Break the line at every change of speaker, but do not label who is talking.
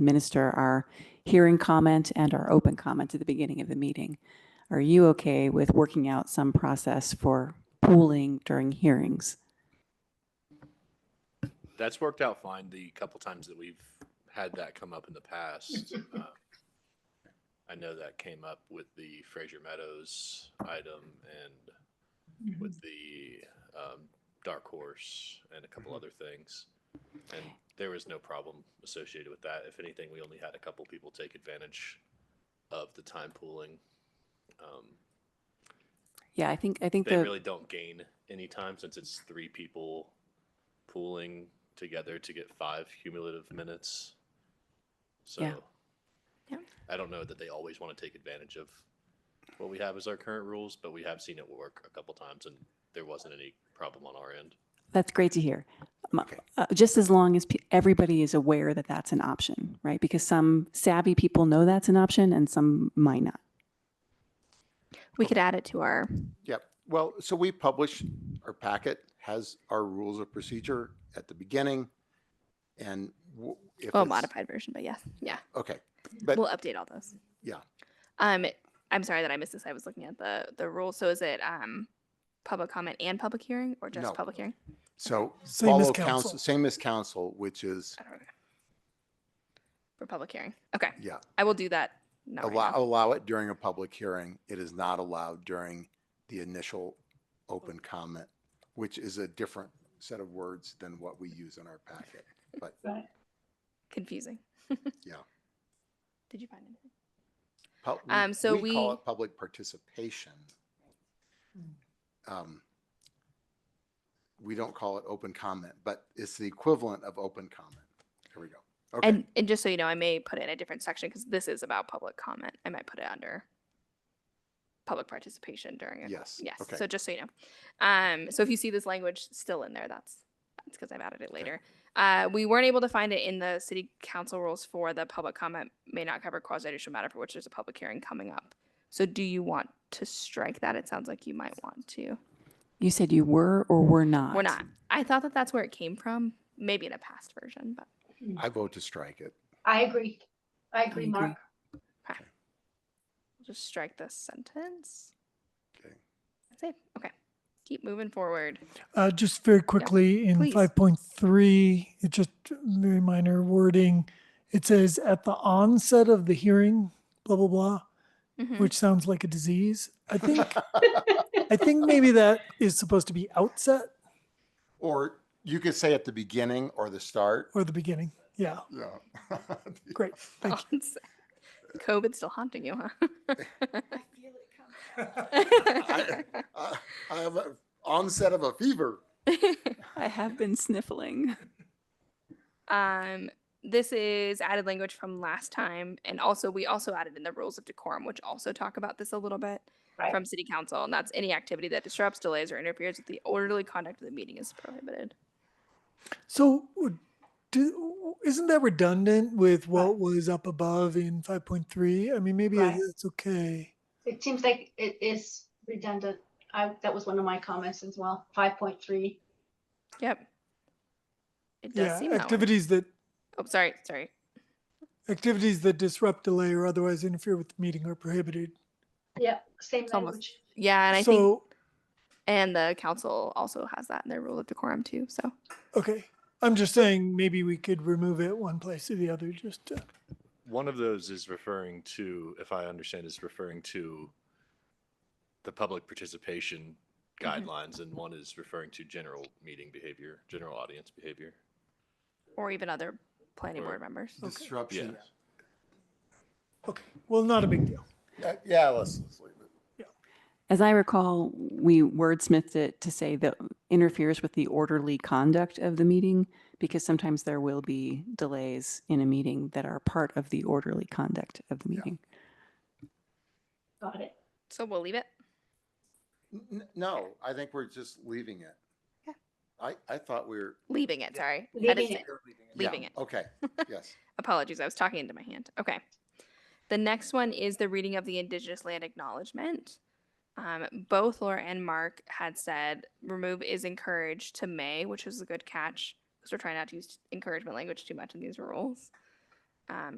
administer our hearing comment and our open comment at the beginning of the meeting. Are you okay with working out some process for pooling during hearings?
That's worked out fine the couple times that we've had that come up in the past. Um, I know that came up with the Fraser Meadows item and with the um, Dark Horse and a couple other things. And there was no problem associated with that. If anything, we only had a couple people take advantage of the time pooling. Um,
Yeah, I think, I think
they
the,
really don't gain any time since it's three people pooling together to get five cumulative minutes. So
Yeah. Yeah.
I don't know that they always want to take advantage of what we have as our current rules, but we have seen it work a couple times and there wasn't any problem on our end.
that's great to hear. Um, uh, Just as long as pe- everybody is aware that that's an option, right? Because some savvy people know that's an option and some might not.
We could add it to our,
Yep. Well, so we publish, our packet has our rules of procedure at the beginning. And w- if
well,
it's-
modified version, but yes, yeah,
Okay, but
we'll update all those.
Yeah.
Um, I'm sorry that I missed this. I was looking at the, the rule. So is it, um, public comment and public hearing or
No.
just public hearing?
so
Same as
follow council,
council.
same as council, which is,
I don't know. For public hearing. Okay.
yeah,
I will do that. Not right
allow,
now.
allow it during a public hearing. It is not allowed during the initial open comment, which is a different set of words than what we use in our packet. But
Confusing.
Yeah.
Did you find anything?
Pub- we-
Um, so
call
we-
it public participation. Um, we don't call it open comment, but it's the equivalent of open comment. There we go. Okay.
And, and just so you know, I may put it in a different section because this is about public comment. I might put it under public participation during a
yes.
Yes.
Okay.
So just so you know, um, so if you see this language still in there, that's that's because I've added it later. Uh, we weren't able to find it in the city council rules for the public comment may not cover quasi judicial matter for which there's a public hearing coming up. So do you want to strike that? It sounds like you might want to.
You said you were or were not?
We're not. I thought that that's where it came from. Maybe in a past version, but
I vote to strike it.
I agree. I
agree.
agree, Mark.
we'll just strike this sentence.
Okay.
That's it. Okay. Keep moving forward.
Uh, just very quickly, in
please.
five point three, it's just very minor wording. It says at the onset of the hearing, blah, blah, blah,
Mhm.
which sounds like a disease. I think, I think maybe that is supposed to be outset
Or you could say at the beginning or the start.
or the beginning. Yeah,
Yeah.
great. Thank you.
COVID's still haunting you, huh?
I I- Uh, I have an onset of a fever.
I have been sniffling.
um, this is added language from last time, and also we also added in the rules of decorum, which also talk about this a little bit
Right.
from City Council, and that's any activity that disrupts, delays, or interferes with the orderly conduct of the meeting is prohibited.
So w- do, isn't that redundant with what was up above in five point three? I mean, maybe
Right.
it's okay.
It seems like it is redundant. I, that was one of my comments as well, five point three.
Yep. It does
Yeah,
seem that way.
activities that
Oh, sorry, sorry.
Activities that disrupt, delay, or otherwise interfere with the meeting are prohibited.
Yep, same
It's almost-
language.
Yeah, and I think
So,
and the council also has that in their rule of decorum too. So
okay, I'm just saying maybe we could remove it one place or the other, just to,
One of those is referring to, if I understand, is referring to the public participation
Mhm.
guidelines, and one is referring to general meeting behavior, general audience behavior.
or even other planning
Or
board members.
Disruption.
okay, well, not a big deal.
Yeah, Yeah, let's, let's leave it.
As I recall, we wordsmithed it to say that interferes with the orderly conduct of the meeting because sometimes there will be delays in a meeting that are part of the orderly conduct of the meeting.
Got it.
So we'll leave it.
N- n- No, I think we're just leaving it.
Yeah.
I, I thought we were.
Leaving it, sorry.
Leaving
That is
it.
it.
Yeah,
Leaving it.
Okay, yes.
Apologies, I was talking into my hand. Okay. The next one is the reading of the Indigenous Land Acknowledgement. Um, both Laura and Mark had said remove is encouraged to may, which is a good catch because we're trying not to use encouragement language too much in these rules. um,